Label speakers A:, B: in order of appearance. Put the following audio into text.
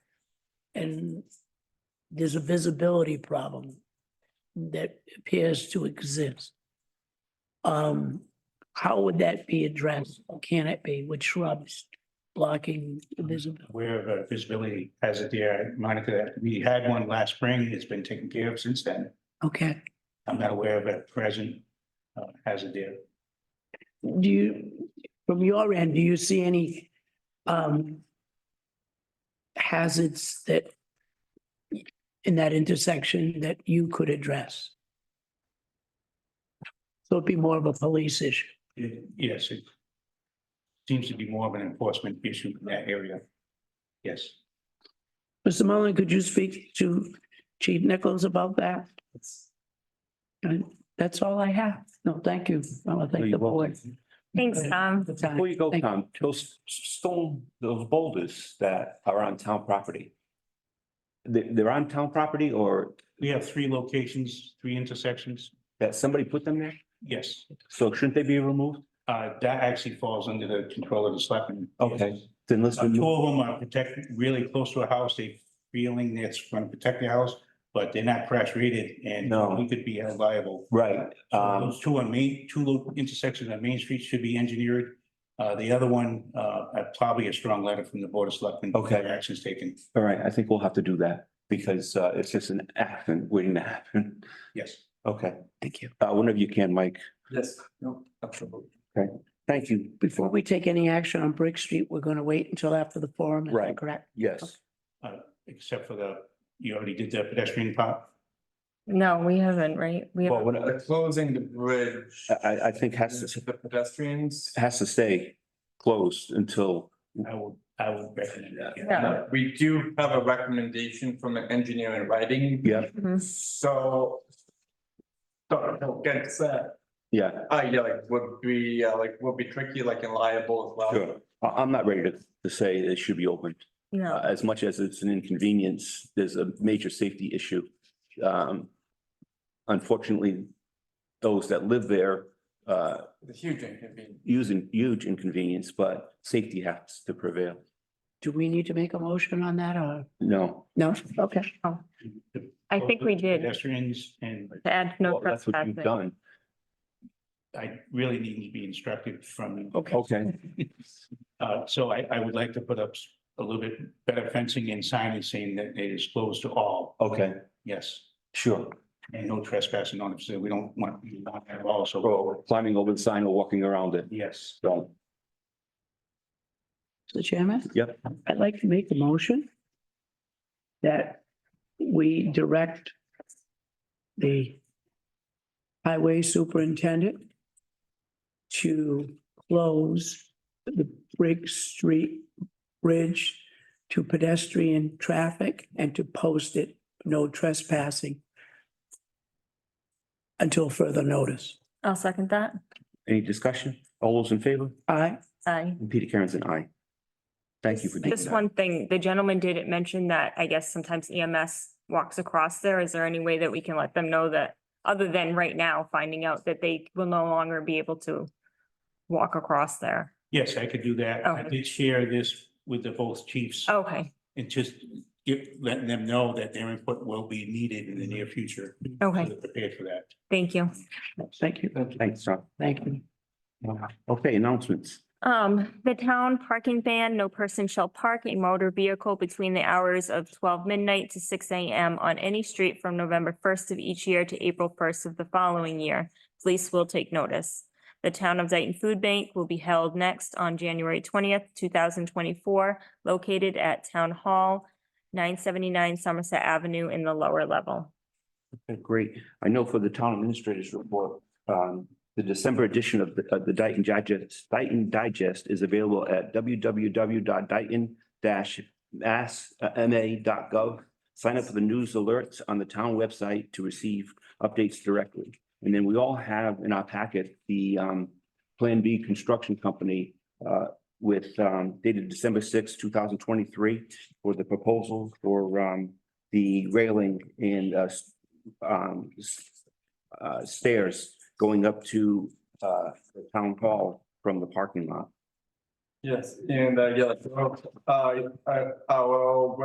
A: and there's a visibility problem that appears to exist. Um, how would that be addressed? Or can it be with shrubs blocking the visibility?
B: aware of uh, visibility as of the, uh, Monica, that we had one last spring, it's been taken care of since then.
A: Okay.
B: I'm not aware of a present uh, hazard there.
A: Do you, from your end, do you see any um hazards that in that intersection that you could address? So it'd be more of a police issue.
B: It- Yes, it seems to be more of an enforcement issue in that area. Yes.
A: Mr. Mullin, could you speak to Chief Nichols about that? And that's all I have. No, thank you. I want to thank the
C: You're
A: board.
D: Thanks, Tom.
A: for the time.
C: Before you go,
A: Thank-
C: Tom, those s- stone, those boulders that are on town property. They, they're on town property or
B: We have three locations, three intersections.
C: that somebody put them there?
B: Yes,
C: So shouldn't they be removed?
B: uh, that actually falls under the control of the selectmen.
C: Okay. Then let's
B: Uh, Two
C: remove,
B: of them are protected, really close to a house, they feeling it's going to protect the house, but they're not crash rated and
C: No.
B: we could be held liable.
C: right, um,
B: Those two on Main, two lo- intersections on Main Street should be engineered. Uh, the other one, uh, uh, probably a strong letter from the Board of Selectmen.
C: Okay.
B: for Actions taken,
C: all right, I think we'll have to do that because, uh, it's just an accident waiting to happen.
B: yes.
C: Okay,
A: Thank you.
C: uh, whenever you can, Mike.
E: Yes, no, absolutely.
C: Thank you.
A: Before we take any action on Brick Street, we're going to wait until after the forum. is that
C: Right.
A: Correct?
C: Yes,
B: Except for the, you already did the pedestrian part.
D: No, we haven't, right? We
C: well,
D: have,
C: when,
E: They're Uh, closing the bridge.
C: I- I- I think has to-
E: The pedestrians.
C: has to stay closed until,
B: I would, I would recommend that.
D: Yeah.
E: Uh, We do have a recommendation from the engineer in writing.
C: yeah,
D: Mhm.
E: So. Don't, don't get upset.
C: yeah,
E: Uh, yeah, like would be, uh, like would be tricky, like and liable as well.
C: sure. I, I'm not ready to, to say it should be open. Uh,
D: mm-hmm. no,
C: as much as it's an inconvenience, there's a major safety issue. Um, unfortunately, those that live there, uh,
E: It's a huge inconvenience.
C: using huge inconvenience, but safety has to prevail.
A: Do we need to make a motion on that or?
C: No,
A: No? Okay.
D: Oh, I think we did
B: Pedestrians and
D: to add no
C: well, that's what
D: trespassing.
C: you've done.
B: I really need to be instructed from.
C: Okay,
B: Uh, so I, I would like to put up s- a little bit better fencing and signage saying that it is closed to all,
C: okay,
B: yes.
C: sure.
B: And no trespassing on it, so we don't want, we don't have all, so,
C: Or climbing over the sign or walking around it.
B: yes.
C: So,
A: Mr. Chairman?
C: Yep.
A: I'd like to make a motion that we direct the highway superintendent to close the Brick Street Bridge to pedestrian traffic and to post it, no trespassing until further notice.
D: I'll second that.
C: any discussion? All those in favor?
A: Aye?
D: Aye.
C: And Peter Karen's an aye. Thank you for doing
D: Just
C: that.
D: one thing, the gentleman did mention that I guess sometimes EMS walks across there. Is there any way that we can let them know that, other than right now, finding out that they will no longer be able to walk across there?
B: Yes, I could do that. I
D: Okay.
B: did share this with the both chiefs
D: Okay,
B: and just give, letting them know that their input will be needed in the near future. so
D: okay,
B: they're Prepared for that.
D: thank you.
A: Thank you.
C: Thanks, Tom.
A: Thank you.
C: Okay, announcements.
D: Um, the town parking ban, no person shall park a motor vehicle between the hours of twelve midnight to six AM on any street from November first of each year to April first of the following year. Police will take notice. The Town of Dayton Food Bank will be held next on January twentieth, two thousand twenty-four, located at Town Hall, nine seventy-nine Somerset Avenue in the lower level.
C: Okay, Great. I know for the town administrator's report, um, the December edition of the, of the Dayton Digest, Dayton Digest is available at uh, www.dayton-mass.ma.gov. Sign up for the news alerts on the town website to receive updates directly. And then we all have in our packet the, um, Plan B Construction Company, uh, with, um, dated December sixth, two thousand twenty-three for the proposal for, um, the railing and, uh, um, s- uh, stairs going up to, uh, the town hall from the parking lot.
E: Yes, and, uh, yeah, like, uh, uh, our